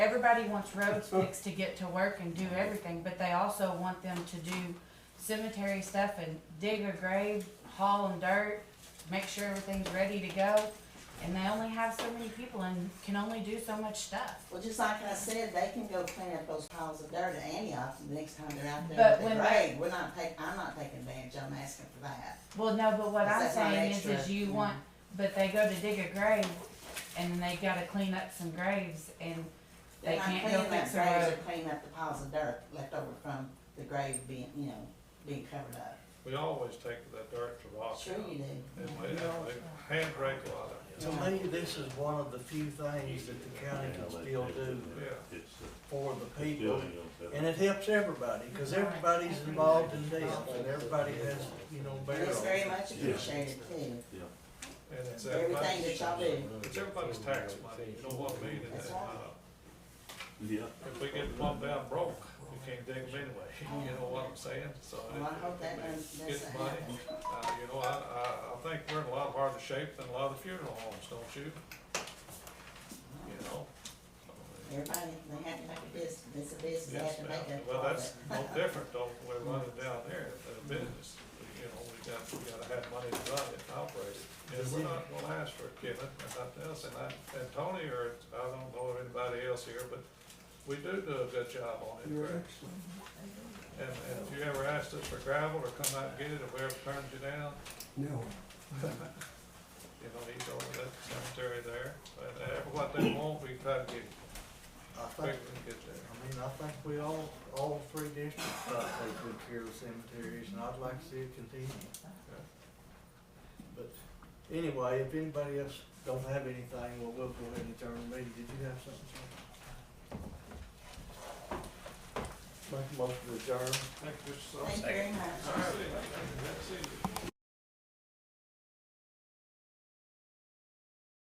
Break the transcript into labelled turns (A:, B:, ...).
A: everybody wants roads fixed to get to work and do everything, but they also want them to do cemetery stuff and dig a grave, haul them dirt, make sure everything's ready to go. And they only have so many people and can only do so much stuff.
B: Well, just like I said, they can go clean up those piles of dirt at Antioch the next time they're out there
A: But
B: with the
A: when they-
B: grade. We're not take, I'm not taking advantage, I'm asking for that.
A: Well, no, but what
B: Is
A: I'm
B: that not
A: saying is, is
B: extra?
A: you
B: Mm.
A: want, but they go to dig a grave and they gotta clean up some graves and They
B: They're not
A: can't go
B: cleaning
A: fix
B: up
A: the
B: graves
A: road.
B: or cleaning up the piles of dirt left over from the grave being, you know, being covered up.
C: We always take that dirt to rock.
B: Sure you do.
C: And we, and we hand rake a lot
D: To me, this is one of the few things that the county can still do
C: Yeah.
D: for the people. And it helps everybody, cause everybody's involved in this, and everybody has, you know,
B: And
D: bear
B: it's
D: on
B: very
D: it.
B: much appreciated too.
C: and
B: Everything
C: it's
B: that
C: everybody's,
B: y'all do.
C: it's everybody's tax money, you know what I mean? And,
B: That's
C: uh,
B: right.
E: Yeah.
C: If we get plumbed down broke, we can't dig them anyway, you know what I'm saying? So.
B: Well, I hope that doesn't-
C: Get the
B: doesn't
C: money,
B: happen.
C: uh, you know, I, I, I think we're in a lot harder shape than a lot of the funeral homes, don't you? You know?
B: Everybody, they have to make a business, it's a business, they
C: Yes,
B: have to
C: ma'am.
B: make a
C: Well, that's
B: profit.
C: no different, though, we run it down there, the business, you know, we got, we gotta have money to run it, and operate it. And we're not gonna ask for it, Kevin, and nothing else, and I, and Tony, or, I don't know of anybody else here, but we do do a good job on it, correct? And, and if you ever asked us for gravel, or come out and get it, or we ever turned you down,
F: No,
C: you know, he's over that cemetery there, and, and what they want, we try to get,
D: I
C: quick
D: think,
C: and get there.
D: I mean, I think we all, all three districts thought they took care of cemeteries, and I'd like to see it continue. But anyway, if anybody else don't have anything, well, we'll go ahead and adjourn the meeting. Did you have something? Shannon? Make a motion to adjourn.
C: Thank you, Mr. Sullivan.
B: Thank you very much.